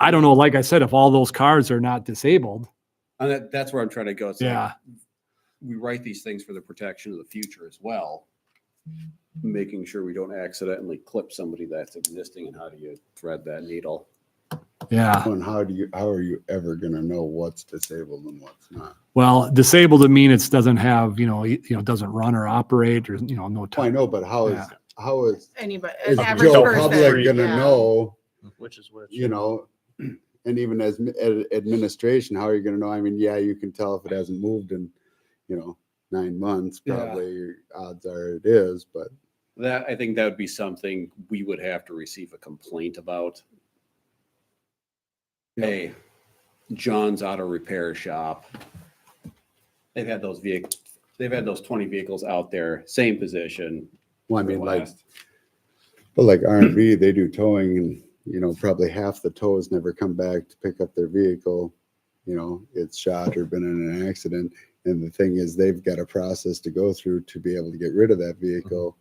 I don't know. Like I said, if all those cars are not disabled, And that, that's where I'm trying to go. It's like, yeah, we write these things for the protection of the future as well. Making sure we don't accidentally clip somebody that's existing and how do you thread that needle? yeah. And how do you, how are you ever gonna know what's disabled and what's not? Well, disabled to mean it doesn't have you know you you know doesn't run or operate or you know no Oh, I time. know, but how is, Yeah. how is, Anybody, is an average Joe Public person. gonna yeah. know, Which is which. you know? And even as mi- ad- administration, how are you gonna know? I mean, yeah, you can tell if it hasn't moved in, you know, nine months, Yeah. probably your odds are it is, but That, I think that would be something we would have to receive a complaint about. Hey, John's Auto Repair Shop. They've had those vehicles, they've had those twenty vehicles out there, same position. Well, I for the mean, like, last- but like R and B, they do towing and, you know, probably half the tows never come back to pick up their vehicle. You know, it's shot or been in an accident. And the thing is, they've got a process to go through to be able to get rid of that vehicle.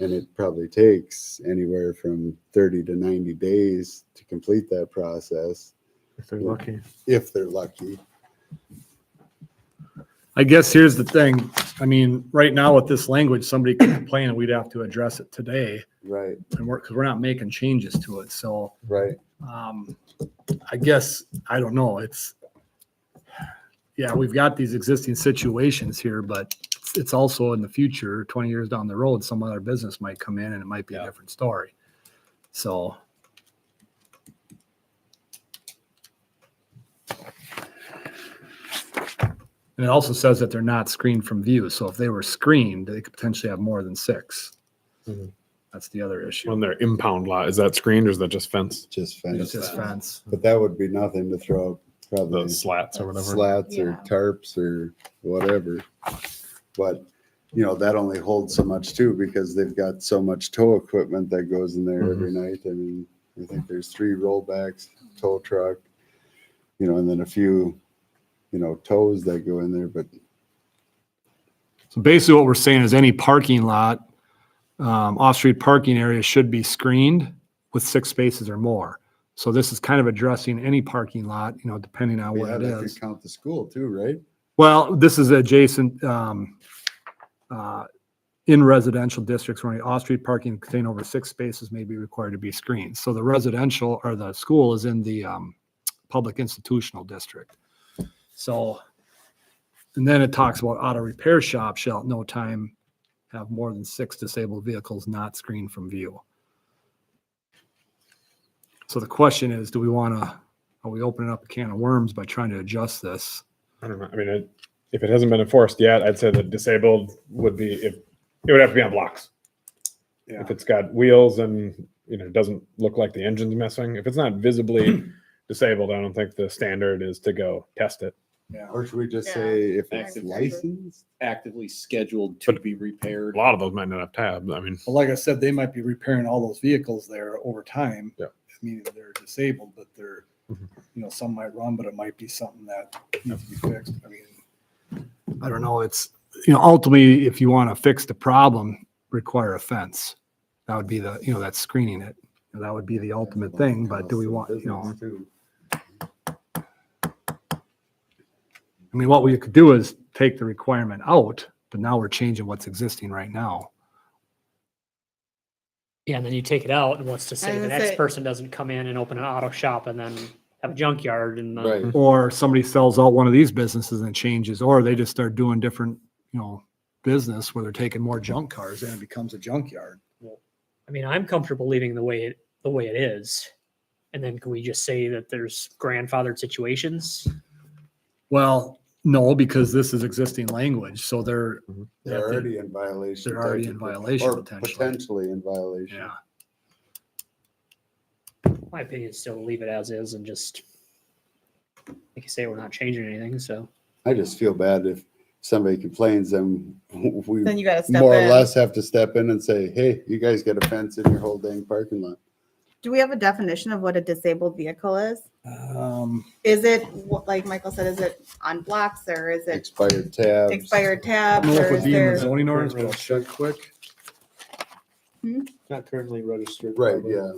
And it probably takes anywhere from thirty to ninety days to complete that process, if they're Yeah. lucky. if they're lucky. I guess here's the thing. I mean, right now with this language, somebody could complain and we'd have to address it today Right, and work, because we're not making changes to it. So right. um, I guess, I don't know. It's, yeah, we've got these existing situations here, but it's- it's also in the future, 20 years down the road, some other business might come in and it might be a Yeah. different story. So. And it also says that they're not screened from view. So if they were screened, they could potentially have more than six. Mhm. That's the other issue. On their impound lot, is that screened or is that just fence? Just It's fence. just fence. But that would be nothing to throw up, The probably. slats or whatever. slats or Yeah. tarps or whatever. But, you know, that only holds so much too, because they've got so much tow equipment that goes in there Mm-hmm. every night. I mean, I think there's three rollbacks, tow truck, you know, and then a few, you know, tows that go in there, but So basically, what we're saying is any parking lot, um, off-street parking area should be screened with six spaces or more. So this is kind of addressing any parking lot, you know, depending on what yeah, it that is. could count the school too, right? Well, this is adjacent, um, uh, in residential districts where any off-street parking containing over six spaces may be required to be screened. So the residential or the school is in the, um, public institutional district. So, and then it talks about auto repair shop shall at no time have more than six disabled vehicles not screened from view. So the question is, do we want to, are we opening up a can of worms by trying to adjust this? I don't know. I mean, it, if it hasn't been enforced yet, I'd say that disabled would be if it would have to be on blocks. If it's got wheels and you know doesn't look like the engine's missing, if it's not visibly disabled, I don't think the standard is to go test it. Or should we just Yeah. say if it's Active licensed? Actively scheduled to But- be repaired. A lot of those might not have tabs. I mean, But like I said, they might be repairing all those vehicles there over time. Yeah. Meaning they're disabled, but they're, Mhm. you know, some might run, but it might be something that needs to be fixed. I mean. I don't know, it's, you know, ultimately, if you want to fix the problem, require a fence. That would be the, you know, that's screening it. And That would be the ultimate thing, but do we want, you know, I mean, what we could do is take the requirement out, but now we're changing what's existing right now. Yeah, and then you take it out, and what's to I say the was next say- person doesn't come in and open an auto shop and then have a junkyard and uh, Mm-hmm. then Right. Or somebody sells out one of these businesses and changes, or they just start doing different, you know, business where they're taking more junk cars and it becomes a junkyard. I mean, I'm comfortable leaving the way it the way it is. And then can we just say that there's grandfathered situations? Well, no, because this is existing language, so they're, They're already in violation. They're already in technically, violation or potentially. Potentially in violation. yeah. My opinion is still leave it as is and just like you say, we're not changing anything. So I just feel bad if somebody complains, then we Then you gotta step more or in. less have to step in and say, hey, you guys got a fence in your whole dang parking lot. Do we have a definition of what a disabled vehicle is? Um, Is it, wh- like Michael said, is it on blocks or is it Expired tabs. expired I tabs don't know if or it'd is be in the there? zoning ordinance, but I'll check quick. Not currently registered. Right, yeah.